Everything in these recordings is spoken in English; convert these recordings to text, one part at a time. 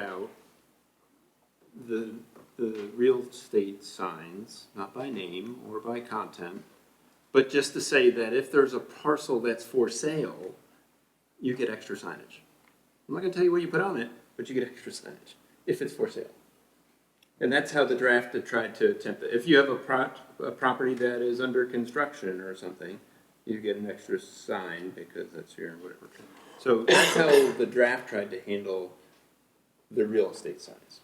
out the, the real estate signs, not by name or by content, but just to say that if there's a parcel that's for sale, you get extra signage. I'm not gonna tell you what you put on it, but you get extra signage if it's for sale. And that's how the draft had tried to attempt it. If you have a prop, a property that is under construction or something, you get an extra sign because that's your whatever. So that's how the draft tried to handle the real estate signs.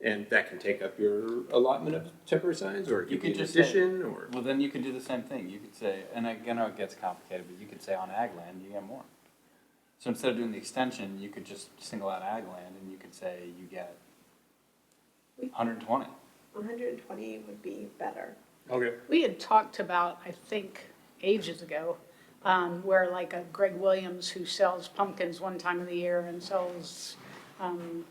And that can take up your allotment of temporary signs, or it You could could be an just say- addition, or. Well, then you could do the same thing. You could say, and again, it gets complicated, but you could say on ag land, you get more. So instead of doing the extension, you could just single out ag land and you could say you get hundred and twenty. One hundred and twenty would be better. Okay. We had talked about, I think, ages ago, um, where like a Greg Williams who sells pumpkins one time of the year and sells, um,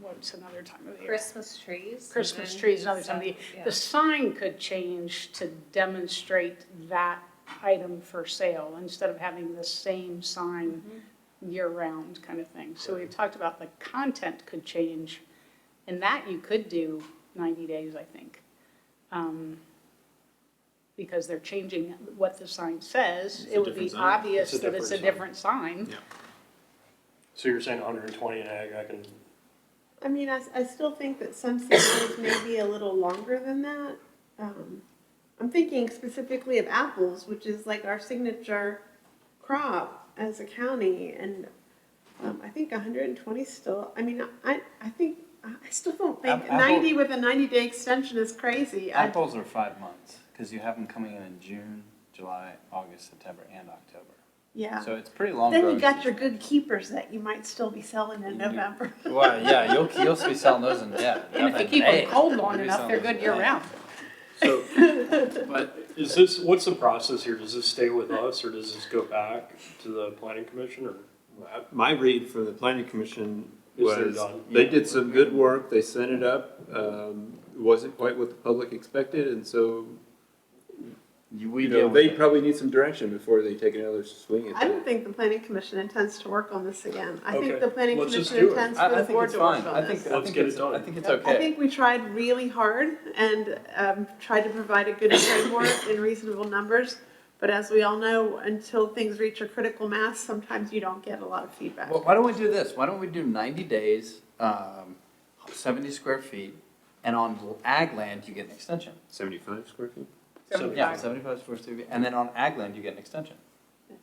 what's another time of the year? Christmas trees. and Christmas then trees another time of some- the year. yeah. The sign could change to demonstrate that item for sale instead of having the same sign year-round kind of thing. So we talked about the content could change, and that you could do 90 days, I think. Um, Because they're changing what the sign says. It's a It would different be sign. obvious It's a that it's a different different sign. So you're saying 120 in ag, I can, I mean, I, s- I still think that some sections may be a little longer than that. Um, I'm thinking specifically of apples, which is like our signature crop as a county, and um, I think hundred and twenty still, I mean, I, I think, I still don't think Ap- apple- ninety with a ninety-day extension is crazy. I- Apples are five months, cause you have them coming in in June, July, August, September, and October. Yeah. So it's pretty long. Then you growing got your season. good keepers that you might still be selling You in do. November. Well, yeah, you'll, you'll be selling those in, yeah. And if you keep May. them cold You'll long be enough, selling they're those in good year-round. so, but is this, what's the process here? Does this stay with us or does this go back to the planning commission or? My read from the planning commission Is they're was, done. they did some good work, they sent it up, um, wasn't quite what the public expected, and so, May. You, we you know, deal they with it. probably need some direction before they take another swing at I don't that. think the planning commission intends to work on this again. I Okay, think the planning let's just commission do it. intends I, for I the think board it's to work fine. I on think, this. I Let's think get it it's, done. I think it's I okay. think we tried really hard and um, tried to provide a good framework in reasonable numbers. But as we all know, until things reach a critical mass, sometimes you don't get a lot of feedback. Well, why don't we do this? Why don't we do ninety days, um, seventy square feet, and on ag land, you get an extension. Seventy-five square feet? So- Yeah, seventy-five square feet, and then on ag land, you get an extension.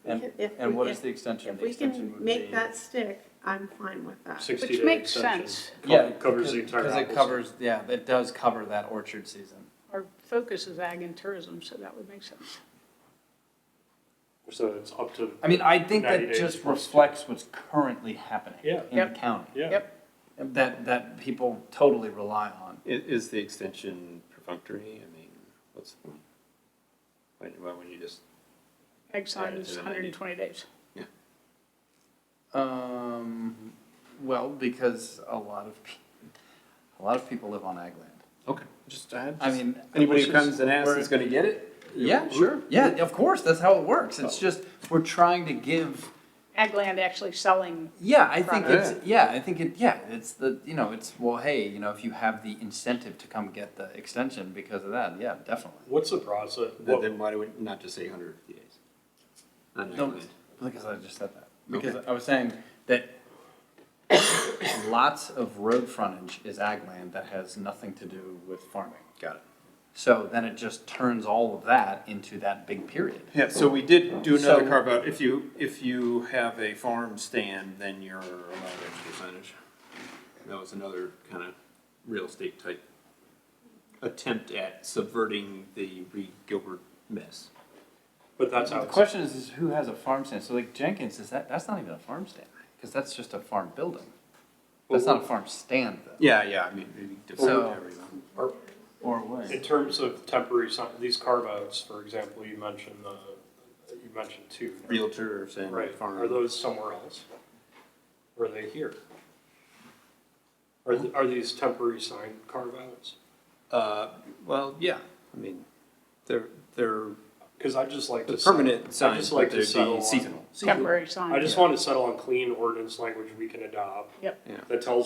And, If we- and what is if- the extension? If The we extension can would make be- that stick, I'm fine with that. 60 Which day makes extension? sense. Co- Yeah. Covers the entire Because it apples. covers, yeah, it does cover that orchard season. Our focus is ag and tourism, so that would make sense. So it's up to, I mean, I think 90 that days just plus two. reflects what's currently happening Yeah. in the Yep. county. yeah. Yep, That, that people totally rely on. Is, is the extension perfunctory? I mean, what's the point? Why, why wouldn't you just? ag signs, Yeah, 120 days. Um, well, because a lot of, pe- a lot of people live on ag land. Okay. Just, I I mean. Anybody who which is- comes and asks we're- is gonna get it? Yeah, sure. Yeah, of course, that's how it works. Oh. It's just, we're trying to give, Ag land actually selling, yeah, I think it's, yeah, I think it, yeah, it's the, you know, it's, well, hey, you know, if you have the incentive to come get the extension because of that, yeah, definitely. What's the process? Then, What- then why do we not just say hundred fifty days? On that No, land. because I just said that. Because I was saying that lots of road frontage is ag land that has nothing to do with farming. Got it. So then it just turns all of that into that big period. Yeah, so we did do another So- carve out, if you, if you have a farm stand, then you're allowed extra signage. That was another kind of real estate type attempt at subverting the Reed Gilbert mess. But that's how The it's, question is, is who has a farm stand? So like Jenkins, is that, that's not even a farm stand, because that's just a farm building. That's not a farm stand though. Yeah, yeah, I mean, maybe So- define everyone. or Or what? in terms of temporary, sign- these carve outs, for example, you mentioned the, you mentioned two. Realtors and Right, are farm. those somewhere else? Or Are they here? Are, th- are these temporary sign carve-outs? Uh, well, yeah, I mean, they're, they're Cause I'd just like to. The permanent signs, settle- I'd just but like they'd to be settle on- seasonal. temporary sign. I just want to settle on clean ordinance language we can adopt Yep. Yeah. that tells